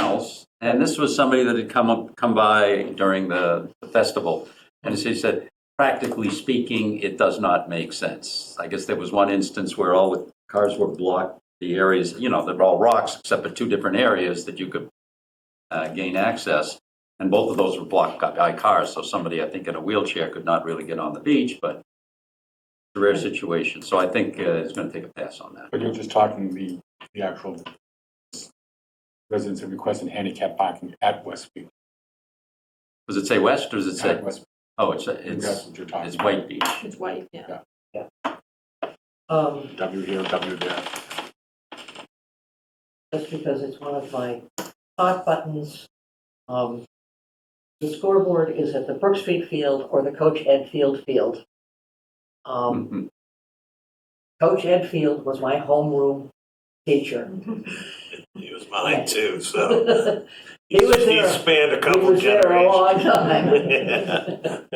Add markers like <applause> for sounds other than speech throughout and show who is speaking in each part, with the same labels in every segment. Speaker 1: else, and this was somebody that had come up, come by during the festival, and she said, practically speaking, it does not make sense. I guess there was one instance where all the cars were blocked, the areas, you know, they're all rocks, except for two different areas that you could uh, gain access, and both of those were blocked by cars, so somebody, I think, in a wheelchair could not really get on the beach, but it's a rare situation, so I think uh, it's going to take a pass on that.
Speaker 2: But you're just talking the, the actual residents who requested handicap parking at Westfield.
Speaker 1: Does it say west, or does it
Speaker 2: At
Speaker 1: say,
Speaker 2: Westfield,
Speaker 1: oh, it's,
Speaker 2: that's
Speaker 1: it's,
Speaker 2: what you're
Speaker 1: it's
Speaker 2: talking about.
Speaker 1: White Beach.
Speaker 3: It's white, yeah.
Speaker 4: Um,
Speaker 2: W here, W there.
Speaker 4: just because it's one of my hot buttons. Um, the scoreboard is at the Brook Street Field or the Coach Ed Field Field.
Speaker 5: Hmm.
Speaker 4: Um,
Speaker 1: Mhm.
Speaker 4: Coach Ed Field was my homeroom
Speaker 5: <laughs>
Speaker 4: teacher.
Speaker 5: He was mine too, so.
Speaker 4: <laughs> He was there.
Speaker 5: He spanned a
Speaker 4: He
Speaker 5: couple
Speaker 4: was there a
Speaker 5: generations.
Speaker 4: long time.
Speaker 5: <laughs>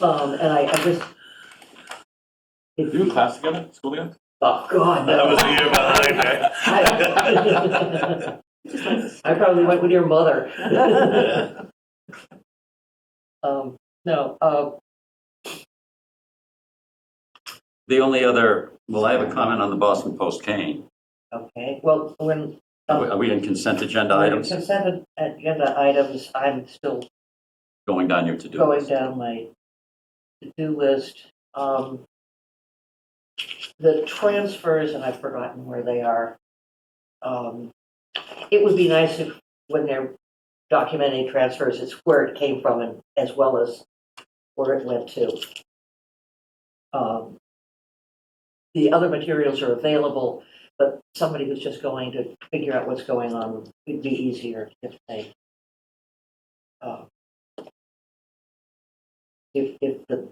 Speaker 4: Um, and I, I just,
Speaker 2: Did you class together, school together?
Speaker 4: oh, God,
Speaker 5: I was
Speaker 4: no.
Speaker 5: a year behind
Speaker 4: <laughs> I I probably went with your mother.
Speaker 5: that.
Speaker 4: Um, no, uh,
Speaker 1: The only other, well, I have a comment on the Boston Post cane.
Speaker 4: okay, well, when. um,
Speaker 1: Are we in consent agenda
Speaker 4: Well,
Speaker 1: items?
Speaker 4: Consent agenda items, I'm still
Speaker 1: Going down your to-do
Speaker 4: going
Speaker 1: list.
Speaker 4: down my to-do list. Um, The transfers, and I've forgotten where they are. Um, It would be nice if, when they're documenting transfers, it's where it came from and as well as where it went to. Um, The other materials are available, but somebody who's just going to figure out what's going on would be easier if they uh, if, if the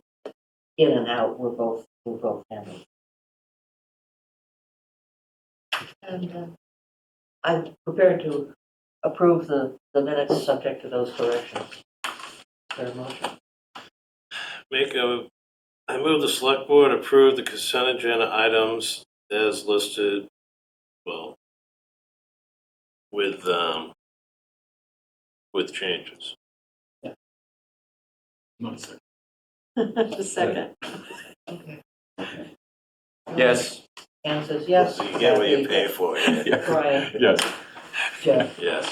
Speaker 4: in and out were both, were both handled. And uh, I'm prepared to approve the, the minutes subject to those corrections. Is there a motion?
Speaker 5: Make a, I move the select board approve the consent agenda items as listed, well, with, um, with changes.
Speaker 2: No, sir.
Speaker 3: <laughs> The second.
Speaker 1: Yes,
Speaker 4: Anne says yes.
Speaker 5: So you get what you
Speaker 4: Kathy,
Speaker 5: pay for, <laughs> yeah.
Speaker 4: Brian,
Speaker 2: Yes,
Speaker 4: Jeff.
Speaker 5: yes.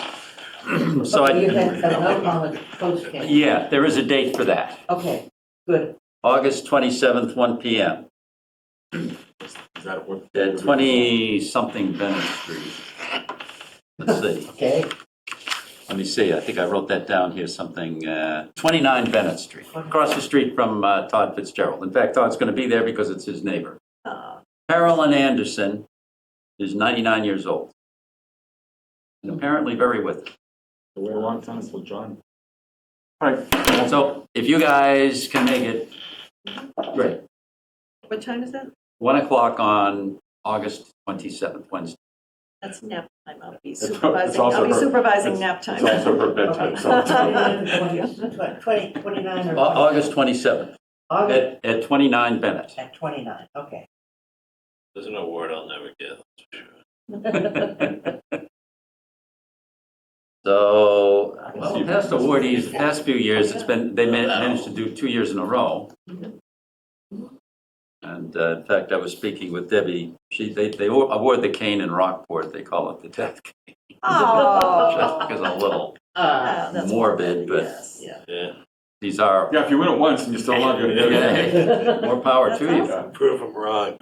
Speaker 1: <laughs> so
Speaker 4: You
Speaker 1: I,
Speaker 4: had an uncommon post case.
Speaker 1: yeah, there is a date for that.
Speaker 4: Okay, good.
Speaker 1: August 27th, 1 PM,
Speaker 2: is that what?
Speaker 1: at 20-something Bennett Street. Let's see,
Speaker 4: Okay,
Speaker 1: let me see, I think I wrote that down here, something, uh, 29 Bennett Street, across the street from uh, Todd Fitzgerald. In fact, Todd's going to be there because it's his neighbor.
Speaker 3: Uh,
Speaker 1: Carolyn Anderson is 99 years old. And apparently very with it.
Speaker 2: We're a long time, so John. All right.
Speaker 1: So if you guys can make it, great.
Speaker 3: What time is that?
Speaker 1: 1 o'clock on August 27th, Wednesday.
Speaker 3: That's nap time. I'll be
Speaker 2: It's- it's
Speaker 3: supervising,
Speaker 2: also
Speaker 3: I'll be
Speaker 2: her-
Speaker 3: supervising
Speaker 2: it's-
Speaker 3: nap time.
Speaker 2: It's also her
Speaker 1: <laughs>
Speaker 2: bedtime, so.
Speaker 4: Twenty- <laughs> twenty- 29
Speaker 1: Au-
Speaker 4: or.
Speaker 1: August 27th
Speaker 4: August
Speaker 1: at at 29 Bennett.
Speaker 4: at 29, okay.
Speaker 5: There's an award I'll never get, that's for sure.
Speaker 1: So, well, the past awardees, the past few years, it's been, they man- managed to do two years in a row. And uh, in fact, I was speaking with Debbie, she, they, they award the cane in Rockport, they call it the death <laughs> cane. Just
Speaker 3: <laughs> Oh.
Speaker 1: because I'm a little
Speaker 4: Uh,
Speaker 3: Ah, that's
Speaker 1: morbid, but
Speaker 3: Yes.
Speaker 4: yeah. <laughs>
Speaker 5: Yeah,
Speaker 1: these are,
Speaker 2: Yeah, if you win it once and you're still alive, you're
Speaker 1: <laughs> Yeah.
Speaker 2: gonna get
Speaker 1: more power to you.
Speaker 5: prove them wrong.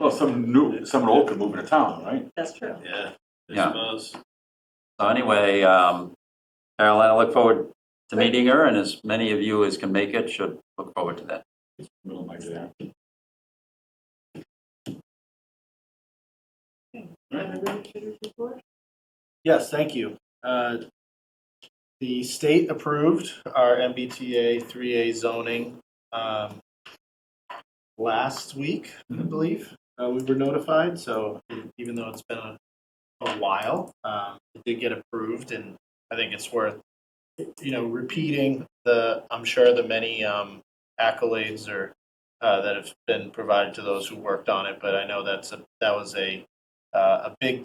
Speaker 2: Well, some new, someone old could move into town, right?
Speaker 3: That's true.
Speaker 5: Yeah, I
Speaker 1: Yeah.
Speaker 5: suppose.
Speaker 1: <laughs> So anyway, um, Caroline, I look forward to meeting her, and as many of you as can make it should look forward to that.
Speaker 2: Middle of my day.
Speaker 6: Yes, thank you. Uh, The state approved our MBTA 3A zoning um, last week, I believe. Uh, We were notified, so even though it's been a a while, um, it did get approved, and I think it's worth, you know, repeating the, I'm sure the many um, accolades or uh, that have been provided to those who worked on it, but I know that's, a that was a, uh, a big